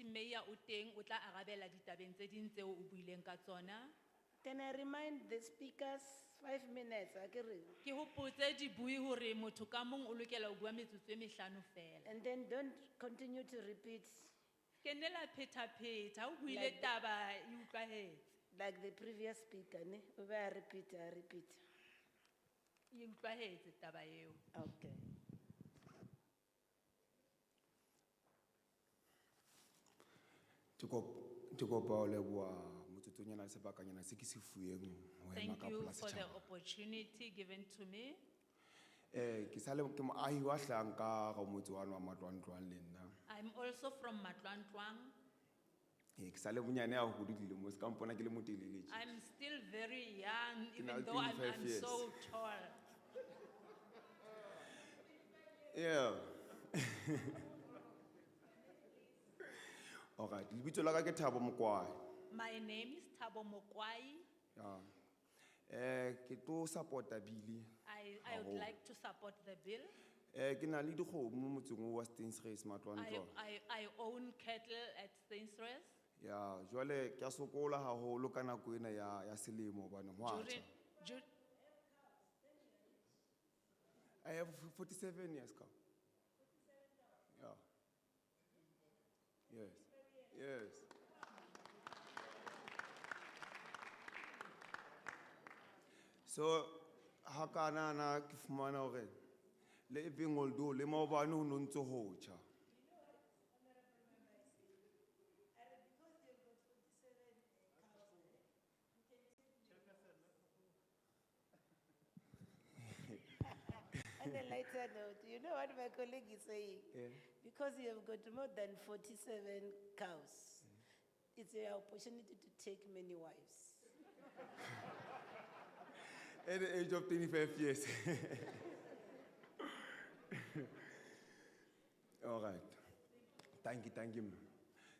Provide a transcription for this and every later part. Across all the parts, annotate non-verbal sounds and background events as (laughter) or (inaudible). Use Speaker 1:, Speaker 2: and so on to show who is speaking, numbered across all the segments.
Speaker 1: mayor o teng o tla arabela ditabeng tse ding tseo o buileng ka tsona
Speaker 2: Can I remind the speakers, five minutes, akere?
Speaker 1: ke hopotse dibui hore motho ka mong o lokela ho bua metsotso e mehlano fela
Speaker 2: And then don't continue to repeat
Speaker 1: ke nne la phetapheta o buile
Speaker 2: Like-
Speaker 1: taba e utlwahetse
Speaker 2: like the previous speaker, ne? Ube a repeat, a repeat.
Speaker 1: e utlwahetse taba eo
Speaker 2: Okay.
Speaker 3: Ke kop- ke kopa ho leboha motsotsonyana le sebakanyana se ke se fueng ho ema
Speaker 1: thank
Speaker 3: ka
Speaker 1: you
Speaker 3: polasi
Speaker 1: for the
Speaker 3: tjhaba.
Speaker 1: opportunity given to me
Speaker 3: Eh, ke sale ke moahi wa hlahang ka ga motse wa matlwantlwang le nna
Speaker 1: i'm also from matlwantlwang
Speaker 3: Eh, ke sale bonyane ya hodi dilemo se ka mpona ke le motelele tje.
Speaker 1: i'm still very young
Speaker 3: Ke na
Speaker 1: even
Speaker 3: le
Speaker 1: though i'm,
Speaker 3: 25
Speaker 1: I'm
Speaker 3: years.
Speaker 1: so tall
Speaker 3: Yeah. (laughs) Alright, lebitso la ka ke Thabo Mokwai.
Speaker 1: my name is tabo mokwai
Speaker 3: Yeah. Eh, ke tlo support-a bili.
Speaker 1: I, I would
Speaker 3: Haholo.
Speaker 1: like to support the bill.
Speaker 3: Eh, ke na le dikgomo motseng oo wa Stensres
Speaker 1: I,
Speaker 3: matlwantlwang.
Speaker 1: I, I own cattle at Stainsres.
Speaker 3: ya jwale ke a sokola haholo ka nako ena ya, ya selemo hobane ho a
Speaker 1: During,
Speaker 3: tjha.
Speaker 1: dur-
Speaker 3: i have Eh, f- 47 years ka yeah. yes yes so ha ka nana ke fumana hore le ebeng oldo le maobane ho no ntse ho tjha
Speaker 2: On a lighter note, you know what my colleague is saying?
Speaker 3: Yeah.
Speaker 2: Because you have got more than forty-seven cows, it's your opportunity to take many wives.
Speaker 3: at the age of 25 years. (laughs) All right. Thank you, thank you. ma'am.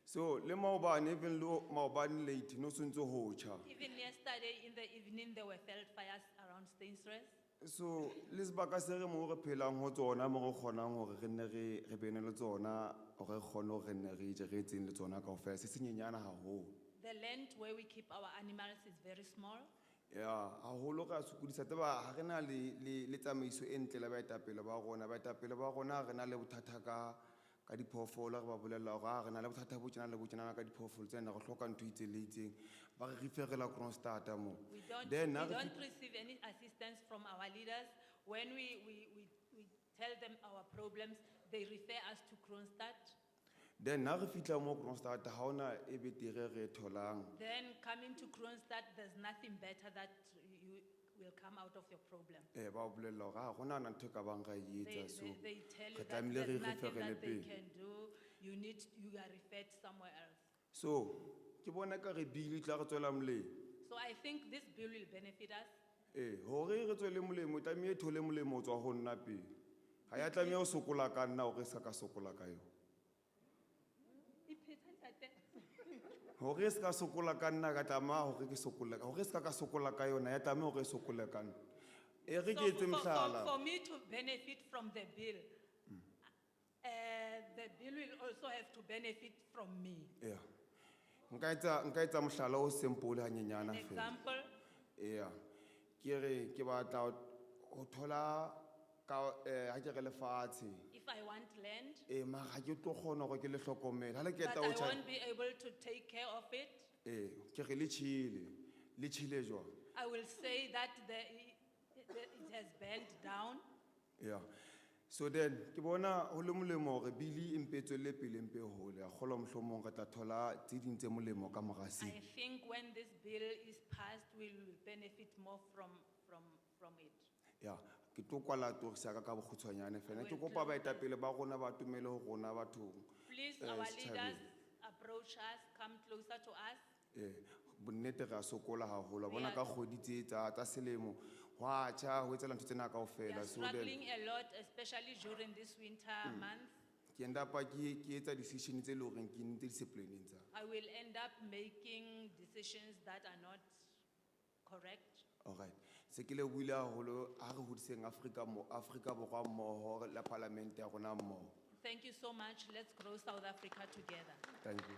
Speaker 3: So, le maobane even lo maobane late no sontso ho cha.
Speaker 1: even yesterday in the evening, there were felt fires around Stainsres.
Speaker 3: So, le sebaka se re mo re phelang ho tsona mo re kgonang hore re nne re re bene le tsona hore re kgone hore re nne re je re etseng le tsona kaofela se senyenyana haholo.
Speaker 1: The land where we keep our animals is very small.
Speaker 3: ya haholo ka sokodisa tseba ha re na le le le tsamaiso e ntle la baetapele ba rona baetapele ba rona ha re na le bothata ka ka diphoofolo re ba bolella hore ha re na le bothata bo tjena le bo tjena ka diphoofolo tsena re hloka ntho e itseng le e itseng ba re referela Kronstadta mo
Speaker 1: We don't, we
Speaker 3: then ha re
Speaker 1: don't receive any assistance from our leaders. When we, we, we, we tell them our problems, they refer us to Kronstadt.
Speaker 3: fi- then ha re fihla mo Kronstadta ha hona e betere re e tholang
Speaker 1: Then coming to Kronstadt, there's nothing better that you will come out of your problem.
Speaker 3: eh ba o bolella hore ha hona na ntho e ka bang ra e
Speaker 1: They,
Speaker 3: etsa so
Speaker 1: they, they tell you
Speaker 3: re
Speaker 1: that
Speaker 3: tlamehile re
Speaker 1: there's
Speaker 3: e
Speaker 1: nothing
Speaker 3: referele
Speaker 1: that they
Speaker 3: pele
Speaker 1: can do, you need, you are referred somewhere else.
Speaker 3: so ke bona ka re bile tla re tswela molemo
Speaker 1: So I think this bill will benefit us.
Speaker 3: ee gore re tswele molemo tlamee e thole molemo o tswa go nna pele ga ya tlamee go sokola ka nna gore e sa ka sokola ka yone gore e se ka sokola ka nna ka tlamaa gore ke sokole gore e se ka ka sokola ka yona ya tlamee gore e sokole ka nna e
Speaker 1: So
Speaker 3: re ke etse
Speaker 1: for-
Speaker 3: motlhala
Speaker 1: for- For me to benefit from the bill, uh, the bill will also have to benefit from me.
Speaker 3: ya nka etsa- nka etsa motlhala o sempole ganyenyana
Speaker 1: An
Speaker 3: fela
Speaker 1: example,
Speaker 3: ee ke re ke batla go thola ka ga ke re lefatshe
Speaker 1: if I want land,
Speaker 3: ee mara ga ke tlo kgona gore ke le tlhokomela ga le
Speaker 1: but
Speaker 3: keta
Speaker 1: I
Speaker 3: o tjha-
Speaker 1: won't be able to take care of it,
Speaker 3: ee ke re E, le tšhile le tšhile jwang
Speaker 1: I will say that the, that it has burned down.
Speaker 3: ya so then ke bona go le molemo gore bile e mpe e tswelele pele mpe e gole ya kgolwa motlhomong re tla thola tse ding tse molemo ka
Speaker 1: I
Speaker 3: moraseng
Speaker 1: think when this bill is passed, we will benefit more from, from, from it.
Speaker 3: ya ke tlo kwala torisa ka ka bokgutshwanyane fela ke
Speaker 1: Well,
Speaker 3: kopa
Speaker 1: close.
Speaker 3: baetapele ba rona ba atumele go rona bathong
Speaker 1: Please,
Speaker 3: Eh,
Speaker 1: our
Speaker 3: setjhabeng.
Speaker 1: leaders, approach us, come closer to us.
Speaker 3: ee E, bonnete re a sokola gagolo bona
Speaker 1: are-
Speaker 3: ka kgodi tse tsa tsa selemo go a tšha go etsela ntho tsena kao
Speaker 1: We
Speaker 3: fela
Speaker 1: are
Speaker 3: so then
Speaker 1: struggling a lot, especially during this winter month.
Speaker 3: ke endapa ke ke etsa decision tse e le goreng ke nnete disciplineng tsa
Speaker 1: I will end up making decisions that are not correct.
Speaker 3: Alright. Se ke le buile haholo ha re hodiseng Afrika mo Afrika borwa mmoho la parlamente ya rona mmoho.
Speaker 1: Thank you so much. Let's grow South Africa together.
Speaker 3: Thank you.